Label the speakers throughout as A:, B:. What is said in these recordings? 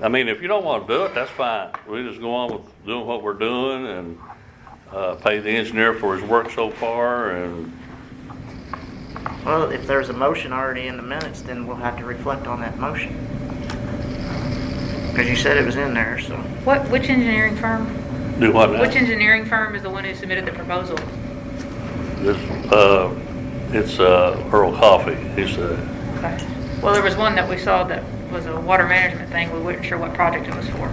A: I mean, if you don't wanna do it, that's fine. We just go on with doing what we're doing and, uh, pay the engineer for his work so far and,
B: Well, if there's a motion already in the minutes, then we'll have to reflect on that motion. Because you said it was in there, so.
C: What, which engineering firm,
A: do what now?
C: which engineering firm is the one who submitted the proposal?
A: This, uh, it's, uh, Earl Coffey. He's the
C: Okay. Well, there was one that we saw that was a water management thing, we weren't sure what project it was for, but.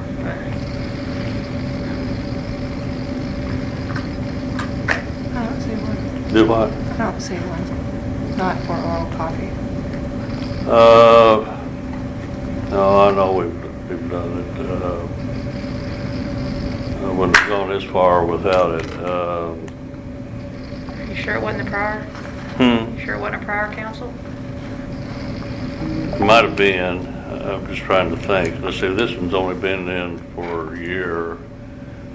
D: I don't see one.
A: do what?
D: I don't see one. Not for oral coffee.
A: Uh, no, I know we've, we've done it, uh, I wouldn't have gone this far without it, um.
C: You sure it wasn't the prior?
A: hmm,
C: You sure it wasn't a prior council?
A: Might have been, I'm just trying to think, let's see, this one's only been in for a year.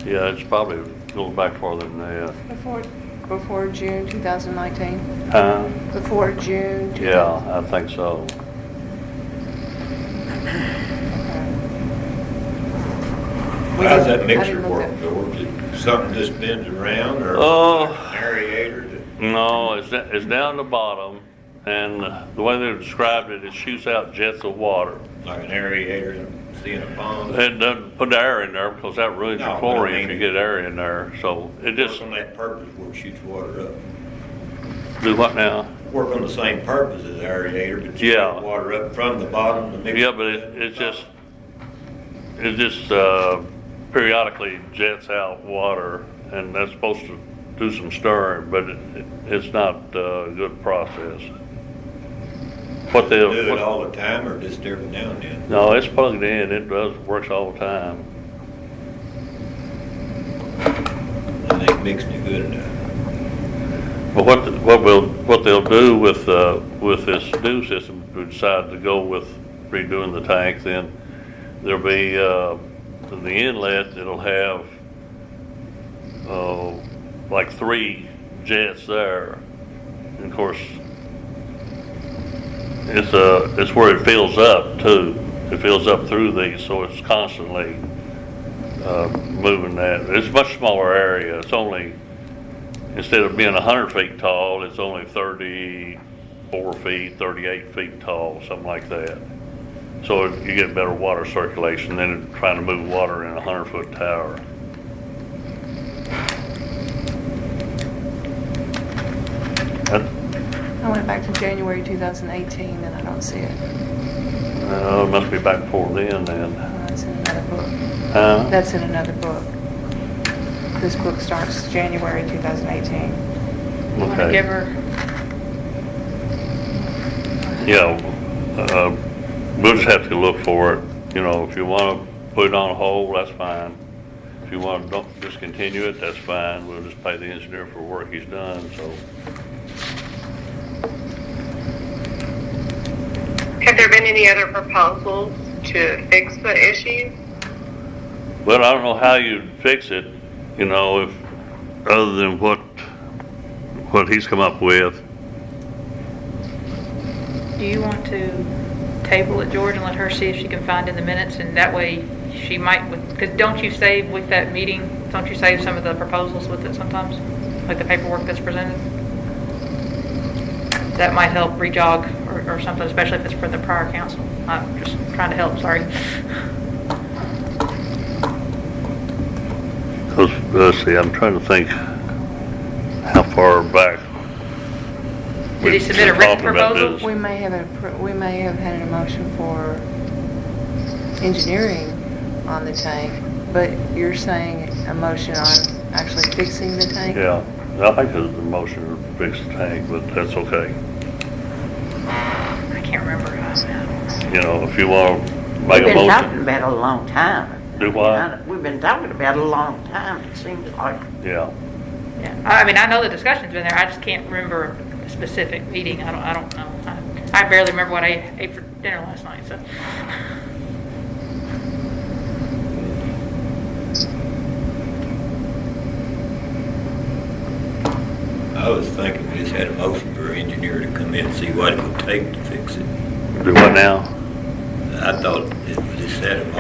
A: Yeah, it's probably going back farther than that.
D: Before, before June 2019?
A: Huh?
D: Before June?
A: Yeah, I think so.
E: How's that
D: I
E: mixer
D: didn't
E: work?
D: look
E: Or is it Something just bends around or
A: Oh.
E: aerator that?
A: No, it's, da- it's down the bottom, and the way they described it, it shoots out jets of water.
E: like an aerator seeing a pond.
A: It doesn't put the air in there because that ruins
E: No,
A: your
E: but I
A: chlorine if you
E: mean-
A: get air in there. So it just,
E: Work on that purpose where it shoots water up.
A: do what now?
E: Work on the same purpose as aerator, but you
A: Yeah.
E: shoot water up from the bottom to mix.
A: Yeah, but it, it's just, it just, uh, periodically jets out water and that's supposed to do some stirring, but it, it- it's not uh, a good process. What they,
E: Do it
A: what-
E: all the time or just every now and then?
A: no, it's plugged in. It does, works all the time.
E: I think mixing it good enough.
A: But what, the- what will, what they'll do with, uh, with this new system, if we decide to go with redoing the tank, then there'll be, uh, the inlet, it'll have, uh, like three jets there. And of course, it's, uh, it's where it fills up too. It fills up through these, so it's constantly, uh, moving that. It's a much smaller area. It's only, instead of being hundred feet tall, it's only thirty-four feet, thirty-eight feet tall, something like that. So you get better water circulation than trying to move water in a hundred-foot tower. That-
D: I went back to January 2018 and I don't see it.
A: Uh, it must be back before then, then.
D: Uh, It's in another book.
A: Huh?
D: That's in another book. This book starts January 2018.
C: Want to
A: Okay.
C: give her,
A: Yeah, uh, we'll just have to look for it, you know, if you wanna put it on hold, that's fine. If you wanna don't discontinue it, that's fine, we'll just pay the engineer for work he's done, so.
F: Have there been any other proposals to fix the issue?
A: But I don't know how you'd fix it, you know, if, other than what, what he's come up with.
C: do you want to table it, George, and let her see if she can find in the minutes? And that way, she might, because don't you save with that meeting, don't you save some of the proposals with it sometimes? Like the paperwork that's presented? That might help re-jog or or something, especially if it's for the prior council. I'm just trying to help, sorry.
A: Cause, let's see, I'm trying to think how far back.
C: Did he
A: we've
C: submit a
A: been
C: written
A: talking about
C: proposal?
A: this.
D: We may have, appro- we may have had an emotion for engineering on the tank, but you're saying a motion on actually fixing the tank?
A: Yeah, I think there's a motion to fix the tank, but that's okay.
C: I can't remember.
A: You know, if you want to
B: We've
A: make a
B: been talking
A: motion, Uh,
B: about it a long time.
A: Do what?
B: We've been talking about it a long time, it seems like.
A: yeah.
C: Yeah, I I mean, I know the discussion's been there, I just can't remember a specific meeting, I don't, I don't know. I- I barely remember what I ate for dinner last night, so.
E: I was thinking we just had a motion for an engineer to come in and see what it would take to fix it.
A: Do what now?
E: I thought it was just had a motion